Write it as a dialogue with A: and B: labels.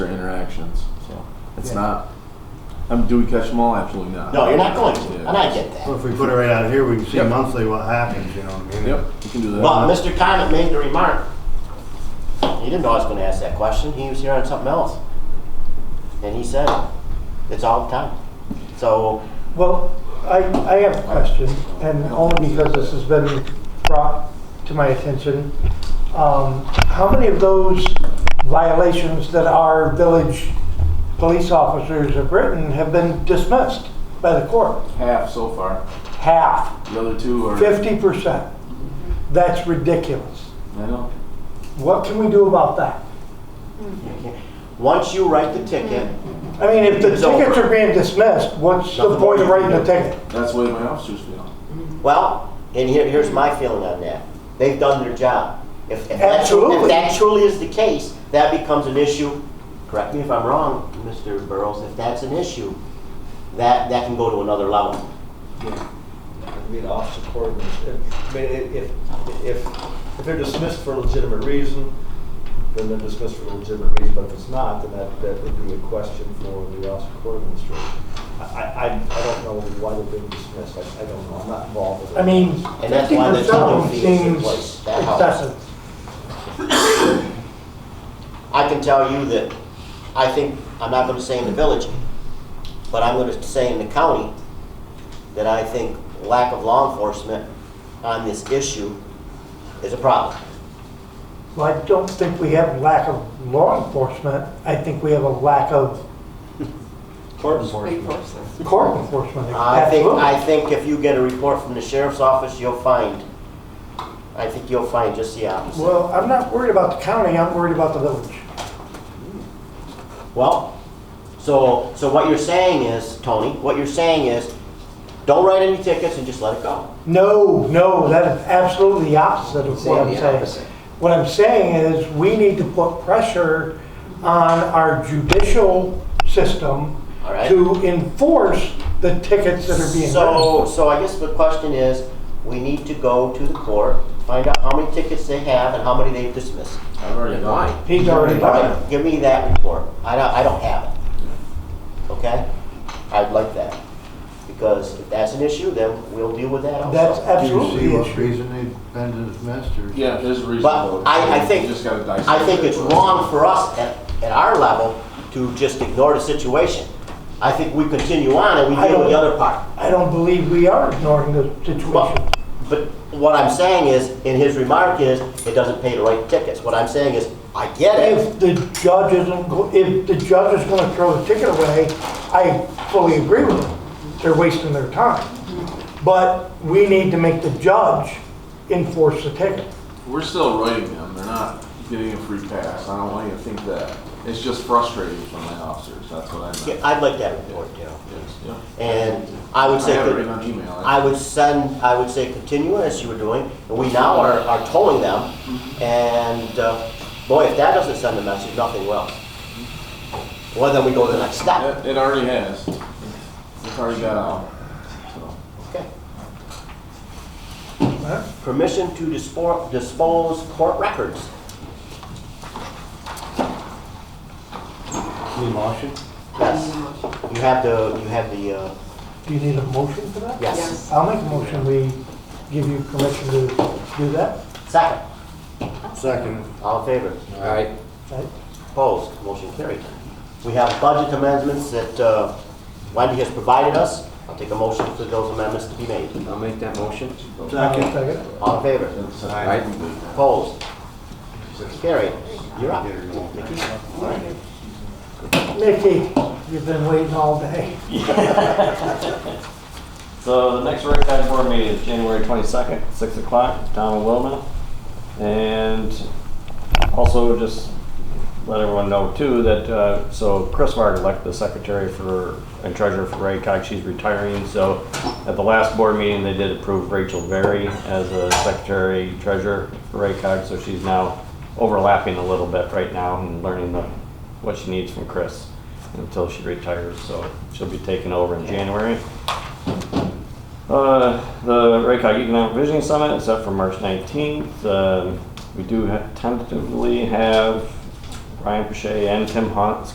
A: their interactions. So it's
B: Yeah.
A: not. I mean, do we catch them all? Absolutely not.
C: No, you're not going to,
A: Yeah.
C: and I get that.
B: Well, if we put it right out here, we can see
A: Yep.
B: monthly what happens, you know what I mean?
A: Yep, you can do that.
C: But Mr. Conant made the remark. He didn't know I was gonna ask that question, he was here on something else. And he said, it. it's all the time. So,
D: Well, I, I have a question, and only because this has been brought to my attention. Um, How many of those violations that our village police officers have written have been dismissed by the court?
A: half so far.
D: Half,
A: The other two are.
D: fifty percent. That's ridiculous.
A: I know.
D: What can we do about that?
C: once you write the ticket,
D: I mean, if the
C: It's over.
D: tickets are being dismissed, what's the
C: Nothing more
D: point of
C: you can
D: writing
C: do.
D: a ticket?
A: That's the way my officers feel.
C: well, and here, here's my feeling on that. They've done their job. If, if that truly, if
D: Absolutely.
C: that truly is the case, that becomes an issue. Correct me if I'm wrong, Mr. Burrows, if that's an issue, that, that can go to another level.
E: read officer coordinates. If- I mean, i- if, if, if they're dismissed for a legitimate reason, then they're dismissed for a legitimate reason, but if it's not, then that, that would be a question for the officer court administration. I, I, I I don't know why they're being dismissed, I, I don't know, I'm not involved with it.
D: I mean,
C: And that's
D: fifty
C: why the towing
D: percent
C: fee is in
D: seems
C: place. That helps.
D: excessive.
C: I can tell you that I think, I'm not gonna say in the village, but I'm gonna say in the county, that I think lack of law enforcement on this issue is a problem.
D: Well, I don't think we have lack of law enforcement. I think we have a lack of
E: Court enforcement.
D: court enforcement.
C: I think,
D: Absolutely.
C: I think if you get a report from the sheriff's office, you'll find, I think you'll find just the opposite.
D: Well, I'm not worried about the county, I'm worried about the village.
C: Well, so, so what you're saying is, Tony, what you're saying is, don't write any tickets and just let it go.
D: No, no, that is absolutely the opposite of what I'm
E: the
D: saying.
E: opposite.
D: What I'm saying is, we need to put pressure on our judicial system
C: All right.
D: to enforce the tickets that are being written.
C: So, so I guess the question is, we need to go to the court, find out how many tickets they have and how many they've dismissed.
A: I've already done it.
D: He's already done it.
C: Give me that report. I don't, I don't have it. Okay? I'd like that. Because if that's an issue, then we'll deal with that
D: That's
C: also.
B: Do you
D: absolutely
B: see
D: the
B: what
D: issue.
B: reason they've been dismissed, or?
A: Yeah, there's a reason.
C: But
A: though.
C: I- I think-
A: You just gotta dissect
C: I think
A: it.
C: it's wrong for us at, at our level to just ignore the situation. I think we continue on and we
D: I
C: deal with the
D: don't-
C: other part.
D: I don't believe we are ignoring the situation.
C: But, but what I'm saying is, in his remark is, it doesn't pay to write tickets. What I'm saying is, I get it.
D: If the judge isn't, go- if the judge is gonna throw the ticket away, I fully agree with them. They're wasting their time. But we need to make the judge enforce the ticket.
A: We're still writing them. They're not getting a free pass. I don't want you to think that. It's just frustrating for my officers. That's what I
C: Yeah,
A: meant.
C: I'd like that report, you know.
A: Yes, yeah.
C: And I would say,
A: I have it written on email.
C: I would send, I would say continue as you were doing, and we now are, are tolling them. And, uh, boy, if that doesn't send a message, nothing will. Well, then we go to the next step.
A: It, it already has. It's already got out. So.
C: Okay. Permission to dispor- dispose court records.
B: Need motion?
C: Yes. You have the, you have the, uh,
D: Do you need a motion for that?
C: yes.
D: I'll make a motion, we give you permission to do that.
C: Second,
B: Second.
C: all in favor?
E: All right.
D: Right?
C: Opposed, motion carried. We have budget amendments that uh, Wendy has provided us. I'll take a motion for those amendments to be made.
F: I'll make that motion.
D: Second.
C: All in favor?
A: It's,
F: All
A: uh,
F: right.
C: Opposed? Carried. You're up. Mickey?
D: Mickey, you've been waiting all day.
G: So the next rec Tide board meeting is January twenty-second, six o'clock, Tom and Wilma. And also just let everyone know too that, uh, so Chris Varg elected the secretary for, and treasurer for Raycog, she's retiring. So at the last board meeting, they did approve Rachel Berry as a secretary treasurer for Raycog. So she's now overlapping a little bit right now and learning the, what she needs from Chris until she retires. So she'll be taking over in January. Uh, the Raycog Economic Visioning Summit is up for March 19th. Um, we do ha- tentatively have Ryan Pache and Tim Hunt